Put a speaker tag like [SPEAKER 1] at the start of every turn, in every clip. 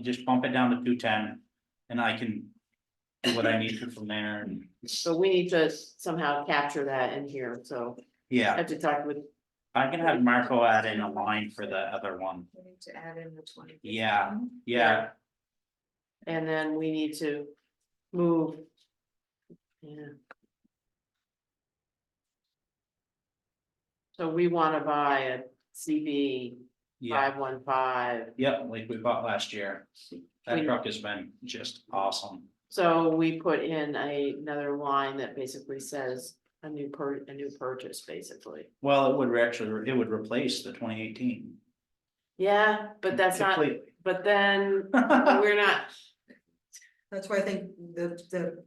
[SPEAKER 1] just bump it down to two ten, and I can do what I need to from there, and,
[SPEAKER 2] So we need to somehow capture that in here, so I
[SPEAKER 1] yeah,
[SPEAKER 2] have to talk with,
[SPEAKER 1] I can have Marco add in a line for the other one,
[SPEAKER 3] We need to add in the twenty.
[SPEAKER 1] Yeah. yeah.
[SPEAKER 2] and then we need to move. Yeah. So we wanna buy a CB
[SPEAKER 1] Yeah,
[SPEAKER 2] five one five,
[SPEAKER 1] yep, like we bought last year, that
[SPEAKER 2] We-
[SPEAKER 1] truck has been just awesome,
[SPEAKER 2] so we put in a- another line that basically says a new per, a new purchase, basically.
[SPEAKER 1] well, it would actually, it would replace the twenty eighteen.
[SPEAKER 2] Yeah, but that's not, but then we're not,
[SPEAKER 3] That's why I think the, the.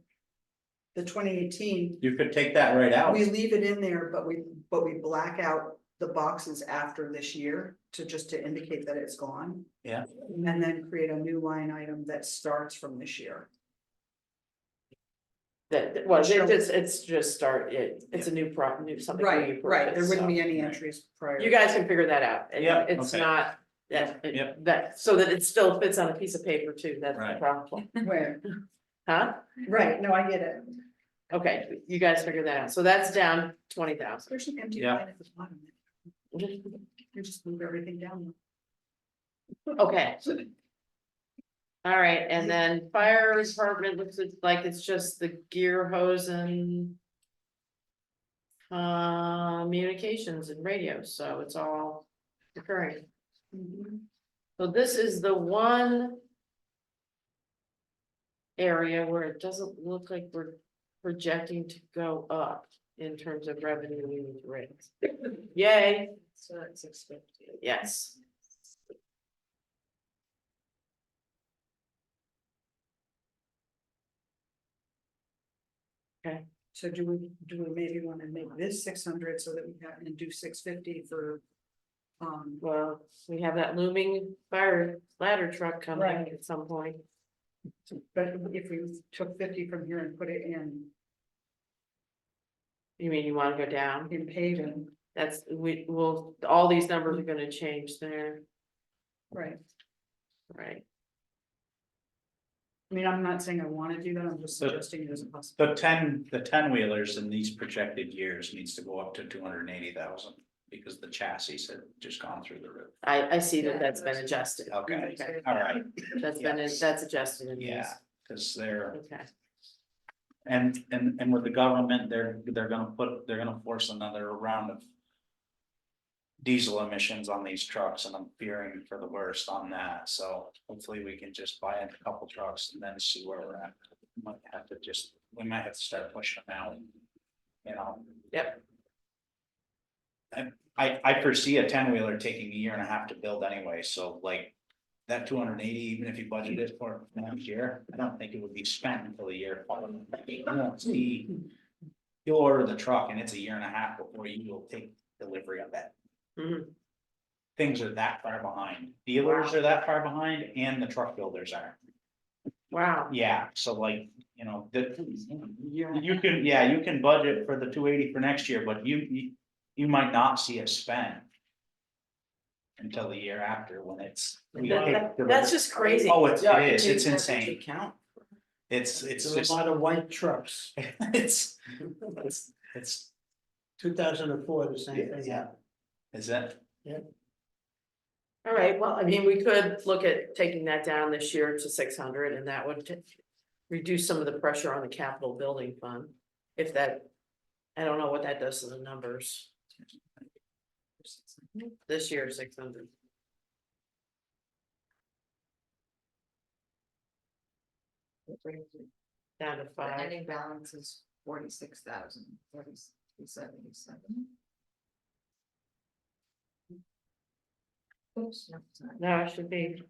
[SPEAKER 3] The twenty eighteen,
[SPEAKER 1] You could take that right out,
[SPEAKER 3] we leave it in there, but we, but we black out the boxes after this year to just to indicate that it's gone.
[SPEAKER 1] Yeah.
[SPEAKER 3] And then create a new line item that starts from this year.
[SPEAKER 2] that, that- well, it just, it's just start, it, it's a new pro, new, something. new purchase, so.
[SPEAKER 3] be any
[SPEAKER 1] Right.
[SPEAKER 3] entries prior.
[SPEAKER 2] You guys can figure that out, and
[SPEAKER 1] Yeah,
[SPEAKER 2] it's
[SPEAKER 1] okay.
[SPEAKER 2] not, that,
[SPEAKER 1] Yeah.
[SPEAKER 2] that, so that it still fits on a piece of paper too, that's the
[SPEAKER 1] Right.
[SPEAKER 2] problem,
[SPEAKER 3] Right,
[SPEAKER 2] huh?
[SPEAKER 3] right, no, I get it.
[SPEAKER 2] Okay, you guys figure that out, so that's down twenty thousand.
[SPEAKER 3] There's an empty
[SPEAKER 1] Yeah.
[SPEAKER 3] line at the bottom. You just move everything down.
[SPEAKER 2] Okay. All right, and then fire department looks like it's just the gear hose and. Uh, communications and radios, so it's all recurring.
[SPEAKER 3] Mm-hmm.
[SPEAKER 2] So this is the one. Area where it doesn't look like we're projecting to go up in terms of revenue rates. Yay,
[SPEAKER 3] So that's expected.
[SPEAKER 2] yes.
[SPEAKER 3] So do we, do we maybe wanna make this six hundred so that we can and do six fifty for? Um,
[SPEAKER 2] Well, we have that looming fire ladder truck coming
[SPEAKER 3] Right.
[SPEAKER 2] at some point.
[SPEAKER 3] but if we took fifty from here and put it in,
[SPEAKER 2] You mean you wanna go down?
[SPEAKER 3] in paving,
[SPEAKER 2] That's, we, will all these numbers are gonna change there,
[SPEAKER 3] right?
[SPEAKER 2] right?
[SPEAKER 3] I mean, I'm not saying I wanna do that, I'm just
[SPEAKER 1] But-
[SPEAKER 3] suggesting it as a
[SPEAKER 1] the
[SPEAKER 3] possibility.
[SPEAKER 1] ten, the ten wheelers in these projected years needs to go up to two hundred and eighty thousand. Because the chassis had just gone through the roof,
[SPEAKER 2] I, I see
[SPEAKER 3] Yeah.
[SPEAKER 2] that that's been adjusted.
[SPEAKER 1] okay, all right,
[SPEAKER 2] That's been, that's adjusted in these,
[SPEAKER 1] yeah, cause they're.
[SPEAKER 2] okay.
[SPEAKER 1] And, and, and with the government, they're, they're gonna put, they're gonna force another round of. Diesel emissions on these trucks and I'm fearing for the worst on that, so hopefully we can just buy a couple trucks and then see where we're at. Might have to just, we might have to start pushing them out. You know?
[SPEAKER 2] Yep.
[SPEAKER 1] I, I, I foresee a ten wheeler taking a year and a half to build anyway, so like. That two hundred and eighty, even if you budget it for next year, I don't think it would be spent until the year. following. You won't see- You'll order the truck and it's a year and a half before you will take delivery of that.
[SPEAKER 2] Mhm.
[SPEAKER 1] Things are that far behind. Dealers are that far behind and the truck builders are.
[SPEAKER 2] Wow,
[SPEAKER 1] Yeah, so like, you know, the, you can, yeah, you can budget for the two eighty for next year, but you, you, you might not see it spent. Until the year after when it's. we
[SPEAKER 2] That-
[SPEAKER 1] take
[SPEAKER 2] that-
[SPEAKER 1] delivery.
[SPEAKER 2] that's just crazy.
[SPEAKER 1] Oh, it's,
[SPEAKER 4] Yeah,
[SPEAKER 1] it is,
[SPEAKER 4] take
[SPEAKER 1] it's
[SPEAKER 4] that into
[SPEAKER 1] insane.
[SPEAKER 4] Account,
[SPEAKER 1] It's, it's
[SPEAKER 4] there's
[SPEAKER 1] just,
[SPEAKER 4] a lot of white trucks,
[SPEAKER 1] it's, it's, it's,
[SPEAKER 4] two thousand and four, the same
[SPEAKER 1] yeah,
[SPEAKER 4] thing.
[SPEAKER 1] yeah. Is that,
[SPEAKER 2] All right, well, I mean, we could look at taking that down this year to six hundred and that would t- reduce some of the pressure on the capital building fund. If that, I don't know what that does to the numbers. This year, six hundred. Down to
[SPEAKER 5] The
[SPEAKER 2] five,
[SPEAKER 5] ending balance is forty-six thousand, forty-three seventy-seven. Oops, no, it's not.
[SPEAKER 2] no, it should be,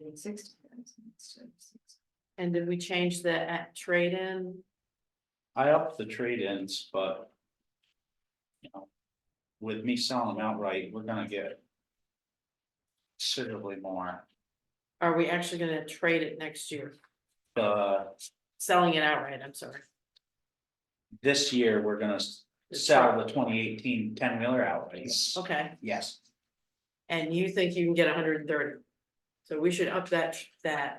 [SPEAKER 5] It's sixty thousand instead of six.
[SPEAKER 2] and did we change the at trade-in?
[SPEAKER 1] I upped the trade-ins, but. You know, with me selling outright, we're gonna get. Considerably more,
[SPEAKER 2] Are we actually gonna trade it next year,
[SPEAKER 1] uh,
[SPEAKER 2] selling it outright, I'm sorry,
[SPEAKER 1] this year, we're gonna s-
[SPEAKER 2] The
[SPEAKER 1] sell the 2018 10 wheeler outright,
[SPEAKER 2] okay,
[SPEAKER 1] yes,
[SPEAKER 2] and you think you can get hundred and thirty? So we should up that, that